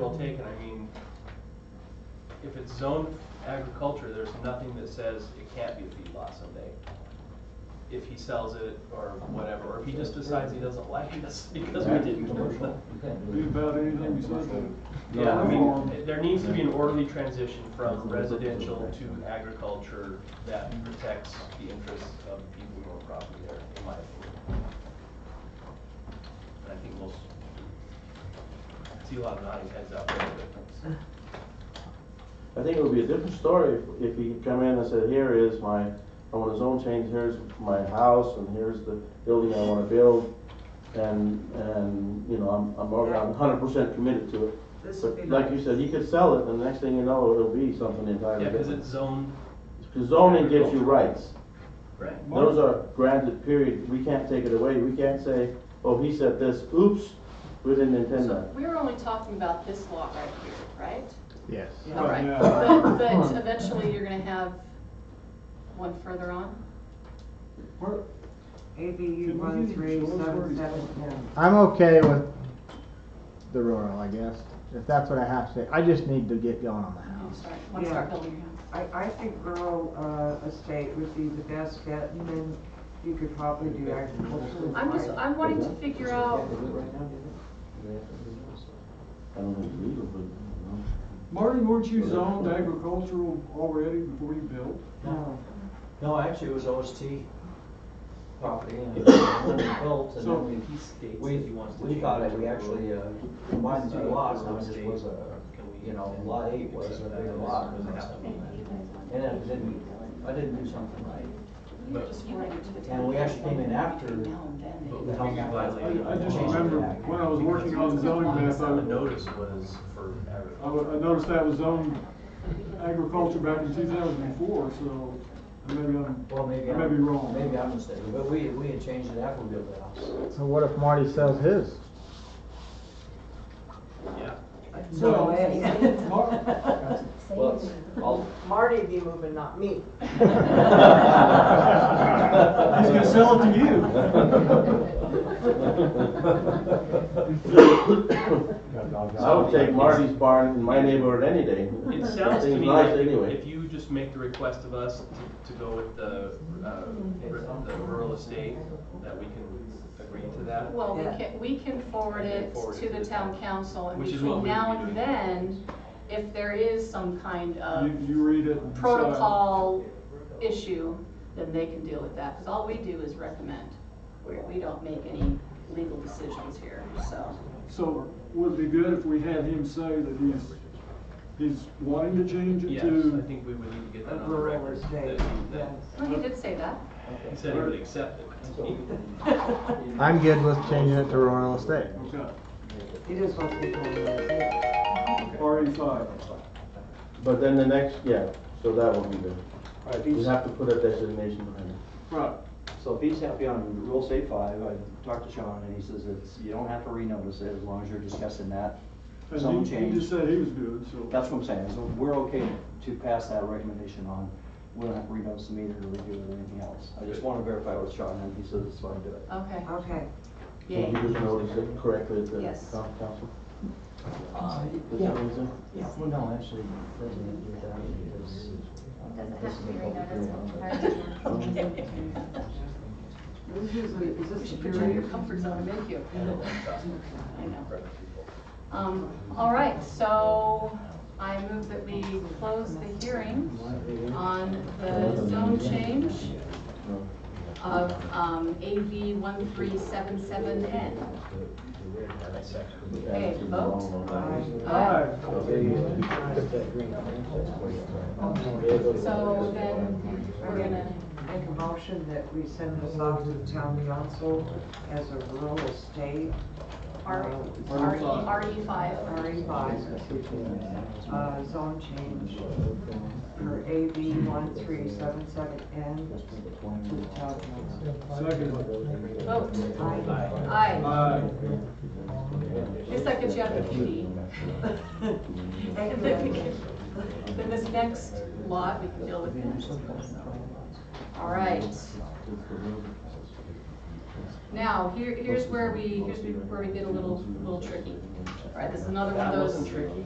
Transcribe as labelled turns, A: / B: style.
A: well taken, I mean, if it's zoned agriculture, there's nothing that says it can't be a feedlot someday. If he sells it or whatever, or if he just decides he doesn't like us because we didn't give him the.
B: Do about anything besides that.
A: Yeah, I mean, there needs to be an orderly transition from residential to agriculture that protects the interests of the people who own property there, in my opinion. And I think we'll s- see a lot of nodding heads out there, but
C: I think it would be a different story if, if he come in and said, here is my, I want a zone change, here's my house, and here's the building I wanna build. And, and, you know, I'm, I'm, over- I'm hundred percent committed to it.
D: This would be
C: But like you
D: nice.
C: said, he could sell it, and the next thing you know, it'll be something entirely
A: yeah, because
C: different.
A: it's zoned.
C: Cause zoning gives you rights.
A: Right.
C: Those are granted period, we can't take it away, we can't say, oh, he said this, oops, we didn't intend
E: So
C: that.
E: we're only talking about this lot right here, right?
F: Yes.
E: All right,
B: Yeah.
E: but, but eventually you're gonna have one further on?
D: ABU one three seven seven ten.
F: I'm okay with the rural, I guess, if that's what I have to say. I just need to get going on the
E: I'm
F: house.
E: sorry, wanna start building your house?
D: I, I think rural, uh, estate would be the best bet, and then you could probably do agricultural.
E: I'm just, I'm wanting to figure out,
C: I don't think it's legal, but, you know.
B: Marty, weren't you zoned agricultural already before you built?
D: No.
G: No, actually, it was OST property, and it was built, and
B: So-
G: then
A: He states
G: we,
A: that he wants to
G: we, we
A: change
G: got it,
A: to
G: we
A: rural.
G: actually, uh, combined the two lots, and it just was a,
A: Can we-
G: you know, lot eight was a bigger lot.
A: Does it have to be
G: And I didn't, I didn't do something right.
E: you're just related to the town.
G: And we actually came in after-
E: Now and then,
A: But
E: maybe.
A: we violated.
B: I just remember when I was working on the zoning map, I,
A: The notice was for
B: I
A: agriculture.
B: wa- I noticed that was zoned agriculture back in two thousand and four, so maybe I'm,
G: Well, maybe
B: I
G: I'm.
B: may be wrong.
G: Maybe I'm mistaken, but we, we had changed it after we built the house.
F: So what if Marty sells his?
A: Yeah.
D: No way.
B: Mar-
G: Well, I'll,
H: Marty'd be moving, not me.
B: He's gonna sell it to
C: I would take Marty's barn in my neighborhood any day.
A: It sounds to
C: Things
A: me
C: nice
A: like
C: anyway.
A: if if you just make the request of us to- to go with the, uh, r- the rural estate, that we can agree to that.
E: Well, we
D: Yeah.
E: can, we can forward it
A: Forward
E: to the town council, and
A: Which is what we
E: between
A: would
E: now
A: be
E: and
A: doing.
E: then, if there is some kind of
B: You, you read it. and decide.
E: protocol issue, then they can deal with that, because all we do is recommend. We, we don't make any legal decisions here, so.
B: So would it be good if we had him say that he's, he's wanting to change it
A: Yes,
B: to
A: I think we would need to get that on the
D: Rural
A: record.
D: estate,
A: that he- that-
D: yes.
E: Well, he Oh, did say that.
A: He said he would accept it.
F: I'm good with changing it to rural estate.
B: Okay,
D: It is what people do.
B: RE E five.
C: But then the next, yeah, so that would be the,
G: all right,
C: you
G: these,
C: have to put a designation behind it.
B: Right.
G: so if he's happy on rule state five, I talked to Sean, and he says it's, you don't have to renotice it, as long as you're discussing that. Some
B: And he, he
G: change.
B: just said he was good, so.
G: That's what I'm saying, so we're okay to pass that recommendation on. We don't have to renotice the meter or redo it or anything else. I just want to verify with Sean, and he says it's fine uh, to do it.
E: Okay,
D: Okay,
E: yay.
C: Did you just notice it correctly at the
E: Yes.
C: town council?
G: Uh,
C: Is that what you said?
G: yeah, well, no, actually, President, you're down because. uh,
I: Doesn't have to be renoticed entirely.
D: this is, is
E: We
D: this
E: should put you in your
D: period?
E: comfort zone, thank you. I know. Um, all right, so I move that we close the hearing on the zone change of, um, AV one three seven seven N. Okay, vote.
D: Uh,
E: Aye. So then we're gonna,
D: Make a motion that we send this off to the town council as a rural estate.
E: R,
D: uh,
E: R E, R E five.
D: RE five, uh, zone change for AB one three seven seven N to the town council.
B: Second.
E: Vote.
D: Aye.
E: Aye.
B: Aye.
E: Just like that you have the PD. And then we can- then this next lot, we can deal with next. All right. Now, here, here's where we, here's where we get a little, little tricky. All right, this is another one of
A: That
E: those.
A: wasn't tricky.